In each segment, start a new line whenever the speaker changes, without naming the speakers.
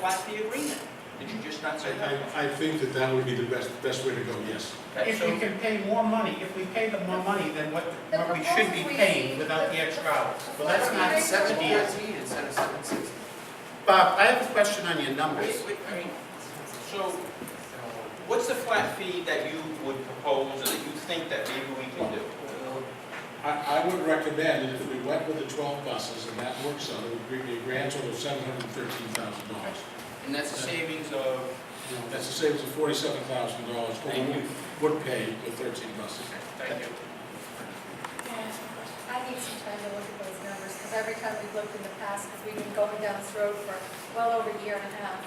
what's the agreement? Did you just not
I,
say that?
I, I think that that would be the best, best way to go, yes.
Okay,
If we
so,
can pay more money, if we pay them more money than what,
The
what we should be
proposal we
paying
see-
without the extra hours.
the
Well, that's not
proposal
seventy,
we see-
it's-
Fourteen instead of seven sixty.
Bob, I have a question on your numbers.
wait, wait, I mean, so what's the flat fee that you would propose or that you think that maybe we can do?
I, I would recommend that if we went with the twelve buses and that works out, it would bring me a grand total of seven hundred and thirteen thousand dollars.
And that's a savings of,
That's a savings of forty-seven thousand dollars, what
Thank you.
we would pay with thirteen buses.
thank you.
I need some time to look at those numbers, because every time we've looked in the past, because we've been going down this road for well over a year and a half,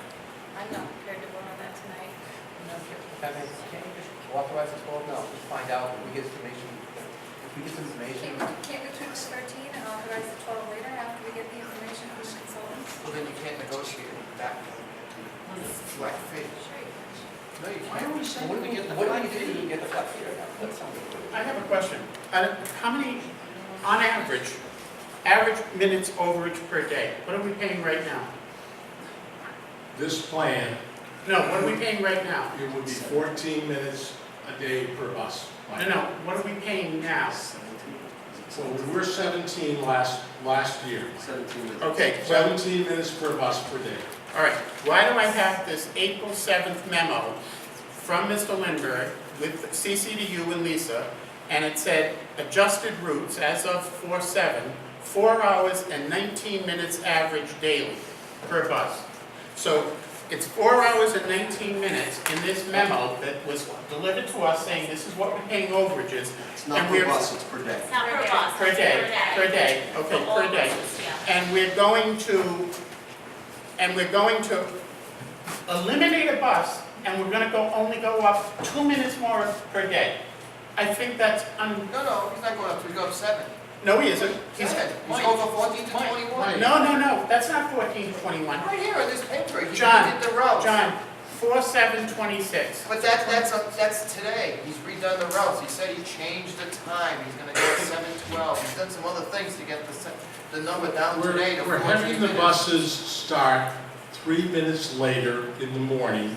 I'm not prepared to vote on that tonight.
Can you just authorize us all? No, just find out, if we get information, if we get some information,
Can't can't go through this 13 and authorize the 12 later after we get the information from the consultants?
well, then you can't negotiate back.
Hmm.
Flat fee.
Sure you can.
No, you
Why
can't.
are we saying
What do
we
we
get the
What do we
flat
do
fee?
to get the flat fee right now? That's something.
I have a question. Uh, How many, on average, average minutes overage per day? What are we paying right now?
This plan,
No, what are we paying right now?
it would be fourteen minutes a day per bus.
No, no, what are we paying now?
So we were seventeen last, last year.
Seventeen.
Okay, well,
Seventeen minutes per bus per day.
all right. Why do I have this April 7th memo from Mr. Lindberg with CC to you and Lisa, and it said adjusted routes as of 4/7, 4 hours and 19 minutes average daily per bus. So it's 4 hours and 19 minutes in this memo that was delivered to us saying this is what we're paying overages
It's
And
not per
we're-
bus, it's per day.
It's not per bus.
per
it's
day, per day,
For
okay,
all
per day.
buses, yeah.
And we're going to, and we're going to eliminate a bus, and we're gonna go, only go up two minutes more per day. I think that's, un
No, no, he's not going up three, he's going up seven.
no, he isn't. He's-
Seven. He's
Mike,
going from fourteen to
Mike,
twenty-one.
No, no, no, that's not fourteen twenty-one.
Right here on this paper, he
John,
did the routes.
John, four seven twenty-six.
But that, that's, up- that's today, he's redone the routes, he said he changed the time, he's gonna go to seven twelve, he's done some other things to get the, se- the number down
We're,
today to
we're
fourteen
having the
minutes.
buses start three minutes later in the morning.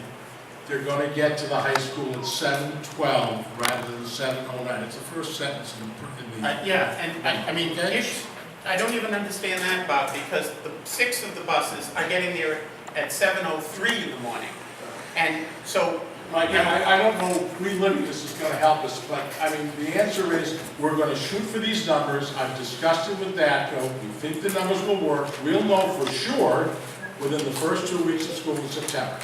They're gonna get to the high school at seven twelve rather than seven oh nine. It's the first sentence in the- in the.
Uh, Yeah, and I, I mean,
Okay.
if- I don't even understand that, Bob, because the, six of the buses are getting there at seven oh three in the morning. And so,
Mike, I, I don't know, reliving this is gonna help us, but, I mean, the answer is, we're gonna shoot for these numbers, I've discussed it with DATCO, we think the numbers will work, we'll know for sure within the first two weeks of school in September.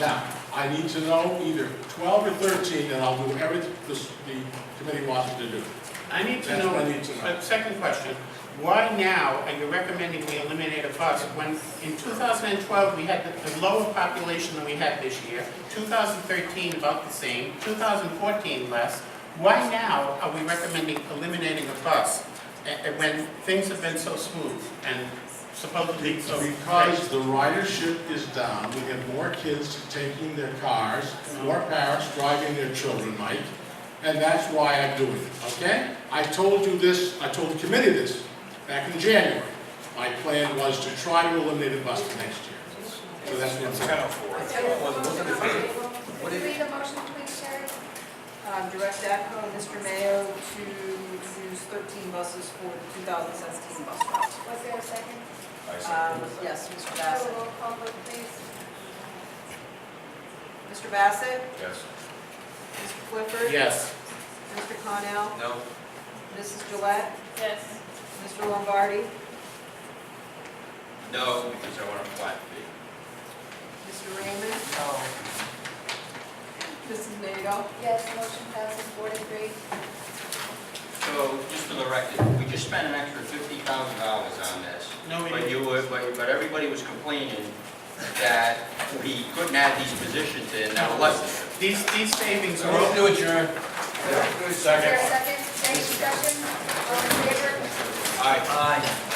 Now, I need to know either twelve or thirteen, and I'll do everything this, the committee wants me to do.
I need to
That's
know,
what I need to know.
a second question, why now are you recommending we eliminate a bus when in two thousand and twelve, we had the the lower population than we had this year, two thousand thirteen about the same, two thousand fourteen less, why now are we recommending eliminating a bus uh, uh, when things have been so smooth and supposedly so?
Because the ridership is down, we have more kids taking their cars, more parents driving their children, Mike, and that's why I'm doing it, okay? I told you this, I told the committee this back in January. My plan was to try to eliminate a bus for next year. So that's what I'm saying.
What is? Read a motion, please, Sherry.
Um, Direct APCO and Mr. Mayo to choose 13 buses for the 2017 bus route.
Was there a second?
Um, Yes, Mr.
So
Bassett.
roll call vote, please.
Mr. Bassett?
Yes.
Mr. Clifford?
Yes.
Mr. Connell?
No,
Mrs. Gillette?
Yes.
Mr. Lombardi?
No, because I want a flat fee.
Mr. Raymond?
no.
Mrs. Nato?
Yes, motion passes four to three.
So, just for the record, we just spent an extra fifty thousand dollars on this.
No, we
But you were, but, but everybody was complaining that we couldn't add these positions in, now let's.
These, these savings are
Move
all,
to adjourn. Second.
Is there a second? Any discussion? All in favor?
Aye.
Aye.